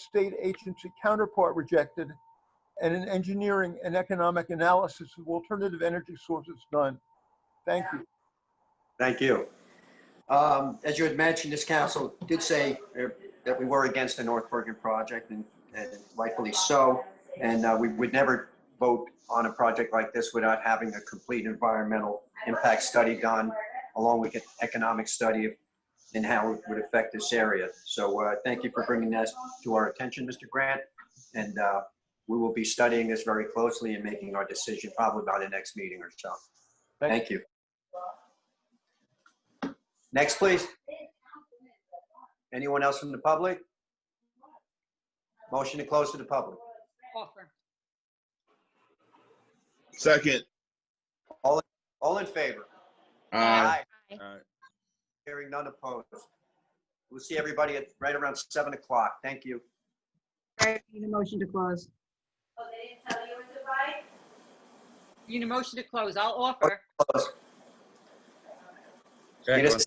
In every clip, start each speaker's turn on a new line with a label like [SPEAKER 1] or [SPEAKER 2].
[SPEAKER 1] state agency counterpart rejected, and an engineering and economic analysis of alternative energy sources done. Thank you.
[SPEAKER 2] Thank you. Um, As you had mentioned, this council did say uh, that we were against the North Bergen project, and and rightfully so. And uh, we would never vote on a project like this without having a complete environmental impact study done, along with an economic study and how it would affect this area. So uh, thank you for bringing that to our attention, Mr. Grant. And uh, we will be studying this very closely and making our decision probably by the next meeting or so.
[SPEAKER 1] Thank-
[SPEAKER 2] Thank you. Next, please. Anyone else from the public? Motion to close to the public.
[SPEAKER 3] Offer.
[SPEAKER 4] Second.
[SPEAKER 2] All in favor?
[SPEAKER 4] Aye.
[SPEAKER 3] Aye.
[SPEAKER 4] Aye.
[SPEAKER 2] Hearing none opposed. We'll see everybody at right around 7 o'clock. Thank you.
[SPEAKER 5] Right, need a motion to close.
[SPEAKER 6] Oh, they didn't tell you it was a bite?
[SPEAKER 3] You need a motion to close. I'll offer.
[SPEAKER 2] Close. Need
[SPEAKER 4] Second.
[SPEAKER 2] a-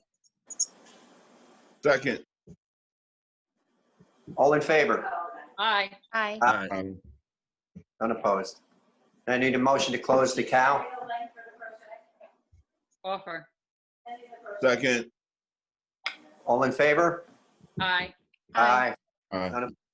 [SPEAKER 4] Second.
[SPEAKER 2] All in favor?
[SPEAKER 3] Aye.
[SPEAKER 7] Aye.
[SPEAKER 4] Aye.
[SPEAKER 2] None opposed. I need a motion to close the cow.
[SPEAKER 3] Offer.
[SPEAKER 4] Second.
[SPEAKER 2] All in favor?
[SPEAKER 3] Aye.
[SPEAKER 7] Aye.
[SPEAKER 4] Aye.
[SPEAKER 2] None